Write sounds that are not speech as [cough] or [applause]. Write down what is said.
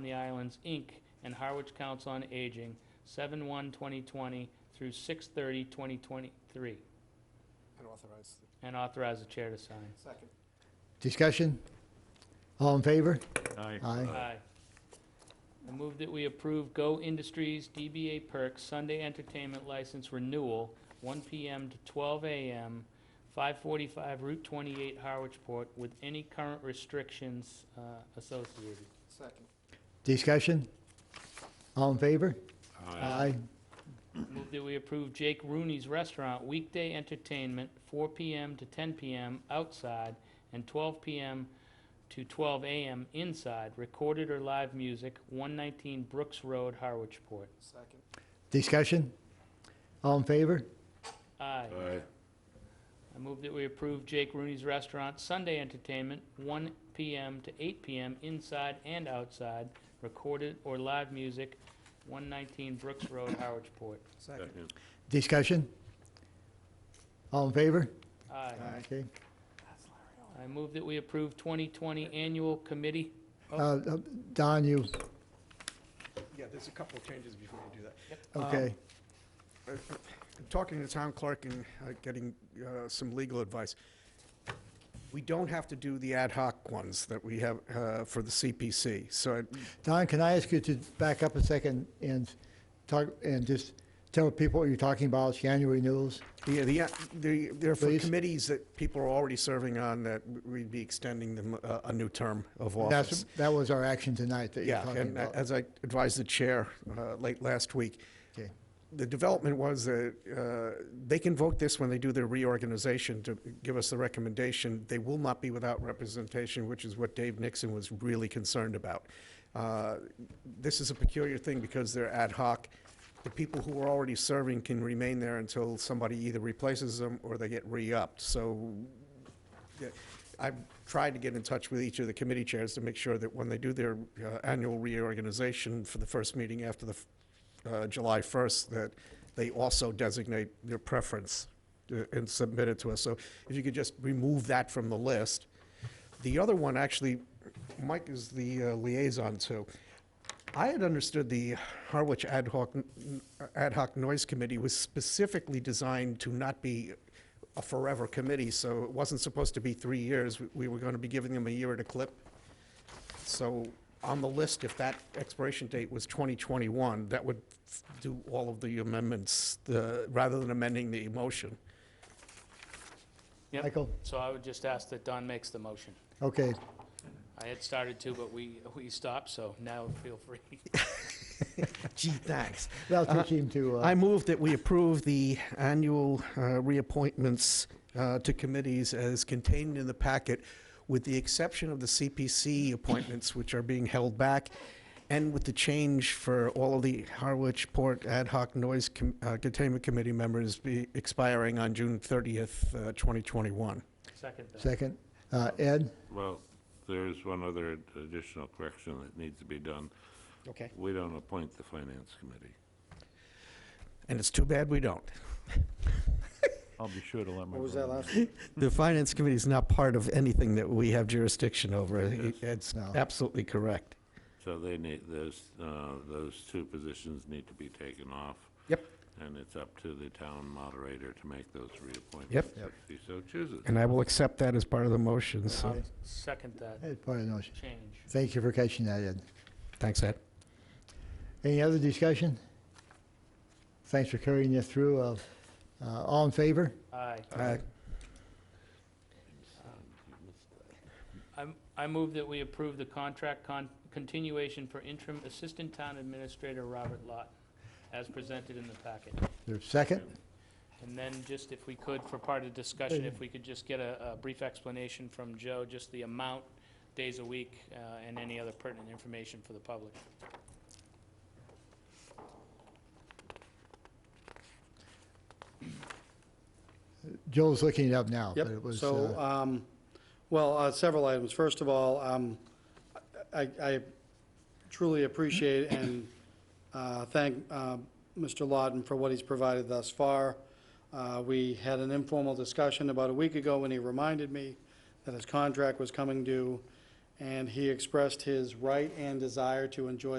on the Islands, Inc., and Harwich Council on Aging, 7/1/2020 through 6/30/2023, And authorize the and authorize the chair to sign. second. Discussion? All in favor? Aye. Aye. I move that we approve Go Industries DBA Perks Sunday Entertainment License Renewal, 1 PM to 12 AM, 545 Route 28, Harwichport, with any current restrictions uh, associated. Second. Discussion? All in favor? Aye. Move that we approve Jake Rooney's Restaurant weekday entertainment, 4 PM to 10 PM outside and 12 PM to 12 AM inside, recorded or live music, 119 Brooks Road, Harwichport. Second. Discussion? All in favor? Aye. Aye. I move that we approve Jake Rooney's Restaurant Sunday entertainment, 1 PM to 8 PM inside and outside, recorded or live music, 119 Brooks Road, Harwichport. Second. Discussion? All in favor? Aye. Okay. I move that we approve 2020 Annual Committee Uh, uh, Don, you, Yeah, there's a couple of changes before you do that. Um, okay. Talking to the town clerk and uh, getting uh, some legal advice, we don't have to do the ad hoc ones that we have uh, for the CPC, so uh, I- Don, can I ask you to back up a second and talk, and just tell people what you're talking about, it's annual renewals? Yeah, the, uh, the, there are for Please. committees that people are already serving on that we'd be extending them uh, a, a new term of That's, office. that was our action tonight that you're Yeah, talking and about. as I advised the chair uh, late last week, Okay. the development was that uh, they can vote this when they do their reorganization to give us the recommendation. They will not be without representation, which is what Dave Nixon was really concerned about. Uh, This is a peculiar thing because they're ad hoc. The people who are already serving can remain there until somebody either replaces them or they get re-upped. So yeah, I've tried to get in touch with each of the committee chairs to make sure that when they do their uh, annual reorganization for the first meeting after the f- uh, July 1st, that they also designate their preference uh, and submit it to us. So if you could just remove that from the list. The other one, actually, Mike is the uh, liaison to. I had understood the Harwich Ad hoc, Ad hoc Noise Committee was specifically designed to not be a forever committee, so it wasn't supposed to be three years. We- We were going to be giving them a year at a clip. So on the list, if that expiration date was 2021, that would f- do all of the amendments, uh, rather than amending the motion. Yep. Michael? So I would just ask that Don makes the motion. Okay, I had started to, but we, [laughs] we stopped, so now feel free. [laughs] Gee, thanks. that'll teach him to, uh, I move that we approve the annual uh, reappointments uh, to committees as contained in the packet, with the exception of the CPC appointments, which are being held back, and with the change for all of the Harwich Port Ad hoc Noise Com- uh, Containment Committee members be expiring on June 30th, uh, 2021. Second that. second. Uh, Ed? Well, there's one other additional correction that needs to be done. Okay. We don't appoint the finance committee. And it's too bad we don't. I'll be sure to let my. What was that brother know. last? one? The Finance Committee is not part of anything that we have jurisdiction over. Yes. It's No. absolutely correct. So they need, those, uh, those two positions need to be taken off. Yep. And it's up to the town moderator to make those reappointments. Yep. Yep. If he so chooses. And I will accept that as part of the motion, so, I'll Um, Second that Ed, pardon us. change. Thank you for catching that, Ed. thanks, Ed. Any other discussion? Thanks for carrying us through. Uh, uh, All in favor? Aye. Uh, I'm- I move that we approve the contract con- continuation for interim Assistant Town Administrator Robert Lott, as presented in the packet. There's a second? And then just if we could, for part of discussion, if we could just get a a brief explanation from Joe, just the amount, days a week, uh, and any other pertinent information for the public. Joel's looking it up now. Yep, but it was, so, uh, um, well, uh, several items. First of all, um, I I truly appreciate and uh, thank uh, Mr. Lawton for what he's provided thus far. Uh, We had an informal discussion about a week ago when he reminded me that his contract was coming due, and he expressed his right and desire to enjoy the